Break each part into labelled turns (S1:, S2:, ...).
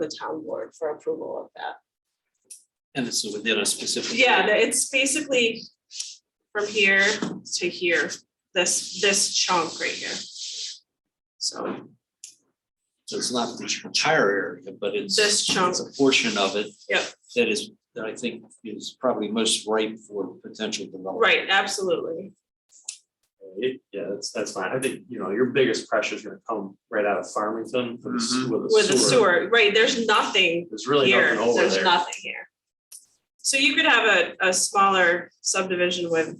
S1: the town board for approval of that.
S2: And this is within a specific.
S1: Yeah, the- it's basically from here to here, this, this chunk right here. So
S2: So it's not the entire area, but it's.
S1: This chunk.
S2: It's a portion of it.
S1: Yep.
S2: That is, that I think is probably most ripe for potential development.
S1: Right, absolutely.
S3: It- yeah, that's, that's fine. I think, you know, your biggest pressure is gonna come right out of Farmington with the
S2: Mm-hmm.
S3: sewer.
S1: With the sewer, right, there's nothing
S3: There's really
S1: here,
S3: nothing over
S1: there's
S3: there.
S1: nothing here. So you could have a, a smaller subdivision with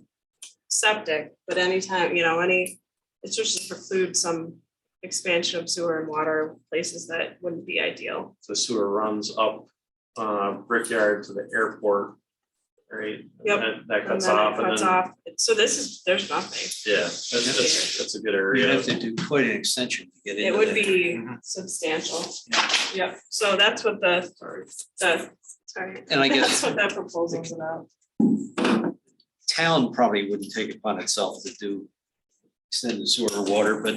S1: septic, but anytime, you know, any, it's just to preclude some expansion of sewer and water places that wouldn't be ideal.
S3: The sewer runs up, uh, Brickyard to the airport, right? And
S1: Yep.
S3: then That
S1: And
S3: cuts
S1: then it
S3: off and
S1: cuts
S3: then,
S1: off. So this is, there's nothing.
S3: yeah, that's, that's, that's a good
S2: You'd
S3: area.
S2: have to do quite an extension to get into
S1: It would
S2: that.
S1: be
S3: Mhm.
S1: substantial.
S2: Yeah.
S1: Yep, so that's what the,
S3: Sorry.
S1: the, sorry.
S2: And I
S1: That's
S2: guess
S1: what that proposal's about.
S2: town probably wouldn't take it upon itself to do extended sewer or water, but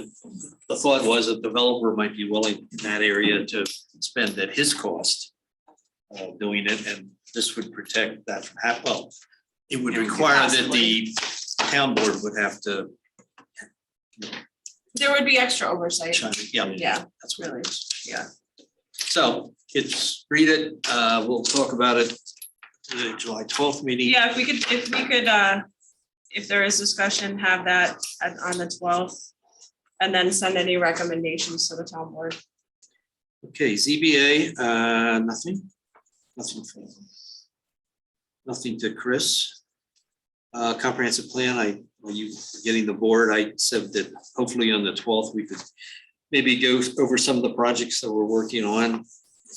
S2: the thought was a developer might be willing in that area to spend at his cost uh, doing it, and this would protect that from hap, well, it would require that the town board would have to
S1: There would be extra oversight.
S2: chime in. Yeah.
S1: Yeah,
S2: That's what
S1: really.
S2: it is, yeah. So it's, read it, uh, we'll talk about it to the July twelfth meeting.
S1: Yeah, if we could, if we could, uh, if there is discussion, have that at- on the twelfth. And then send any recommendations to the town board.
S2: Okay, ZBA, uh, nothing, nothing. for Nothing to Chris. Uh, comprehensive plan, I, were you getting the board? I said that hopefully on the twelfth, we could maybe go over some of the projects that we're working on,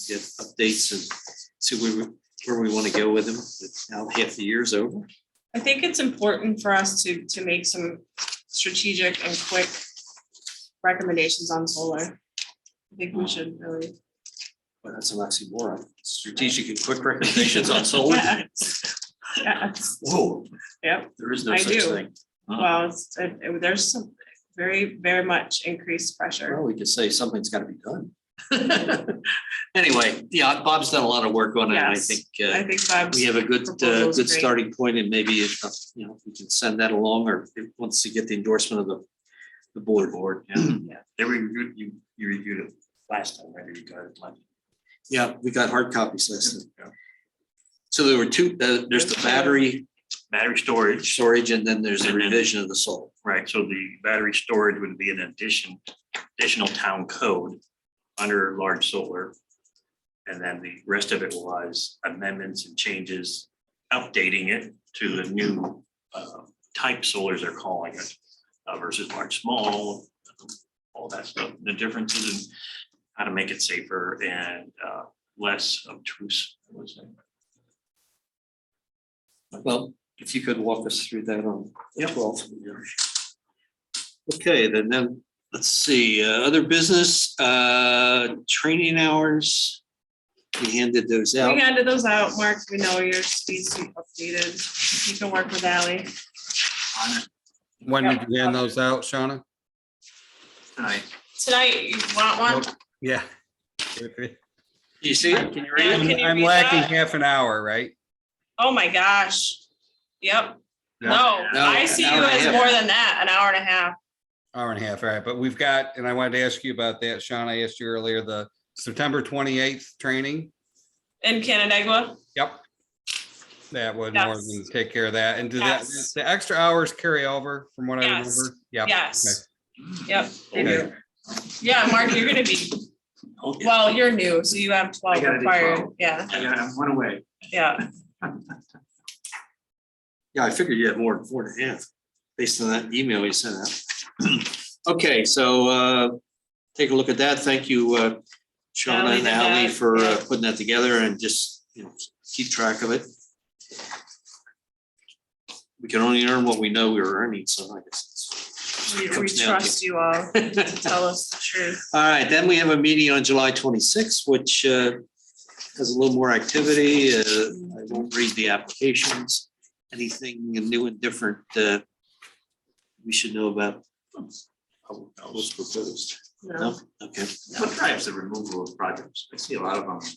S2: get updates and see where, we- where we want to go with them. Now half the year's over.
S1: I think it's important for us to, to make some strategic and quick recommendations on solar. I think we should really.
S2: Well, that's an oxymoron. Strategic and quick recommendations on solar.
S1: Yes.
S2: Whoa.
S1: Yep.
S2: There is no
S1: I
S2: such
S1: do.
S2: thing. Huh.
S1: Well, it's- it- it- there's some very, very much increased pressure.
S2: Well, we could say something's gotta be done. Anyway, yeah, Bob's done a lot of work on it. and I
S1: Yes,
S2: think
S1: I
S2: uh,
S1: think Bob's,
S2: we have a good, uh,
S1: proposal's
S2: good
S1: great.
S2: starting point and maybe if, uh, you know, if we can send that along or if- once you get the endorsement of the, the board. Board,
S1: Yeah.
S2: They reviewed, you, you reviewed it last time, right? You got it. Yeah, we got hard copies last time. So there were two, uh, there's the battery
S4: Battery storage,
S2: storage, and then there's a
S4: And then-
S2: revision of the soul.
S4: right, so the battery storage would be an addition, additional town code under large solar. And then the rest of it was amendments and changes, updating it to the new uh, type solars they're calling it uh, versus large, small, all that stuff, the differences in how to make it safer and uh, less obtrusive. what was it?
S2: Well, if you could walk us through that on. Yeah. Okay, then, then, let's see, uh, other business, uh, training hours. We handed those
S1: we
S2: out.
S1: handed those out, Mark, we know your speed suit updated, you can work with Ally.
S4: On it
S5: When
S1: Yeah.
S5: did you hand those out, Shauna?
S4: Tonight,
S1: Tonight, you want one?
S5: Yeah.
S2: You see? it? Can you read it?
S1: Can you
S5: I'm
S1: read
S5: lacking
S1: that?
S5: half an hour, right?
S1: Oh my gosh, yep, no,
S2: No,
S1: I see you
S2: an hour and a
S1: as
S2: half.
S1: more than that, an hour and a half.
S5: Hour and a half, all right, but we've got, and I wanted to ask you about that, Sean, I asked you earlier, the September twenty-eighth training.
S1: In Canandaigua,
S5: Yep. That would more
S1: Yes.
S5: than take care of that, and do that,
S1: Yes.
S5: the extra hours carry over from what I remember?
S1: Yes.
S5: Yep.
S1: yes, yep, they
S5: Okay.
S1: do. Yeah, Mark, you're gonna be,
S4: Okay.
S1: well, you're new, so you have twelve
S4: Oh, I gotta do
S1: required,
S4: 12.
S1: yeah,
S4: I got one away.
S1: yeah,
S2: Yeah, I figured you had more than four and a half, based on that email you sent out. Okay, so, uh, take a look at that. Thank you, uh,
S1: Ally
S2: Shauna
S1: did
S2: and Ally
S1: that,
S2: for uh,
S1: yeah.
S2: putting that together and just, you know, keep track of it. We can only earn what we know we were earning, so I guess.
S1: we
S2: it's-
S1: we
S2: comes down to-
S1: trust you all to tell us the truth.
S2: All right, then we have a meeting on July twenty-sixth, which uh, has a little more activity. Uh, I won't read the applications. Anything new and different uh, we should know about? What's proposed?
S1: No.
S2: No, okay.
S4: What drives the removal of projects? I see a lot of them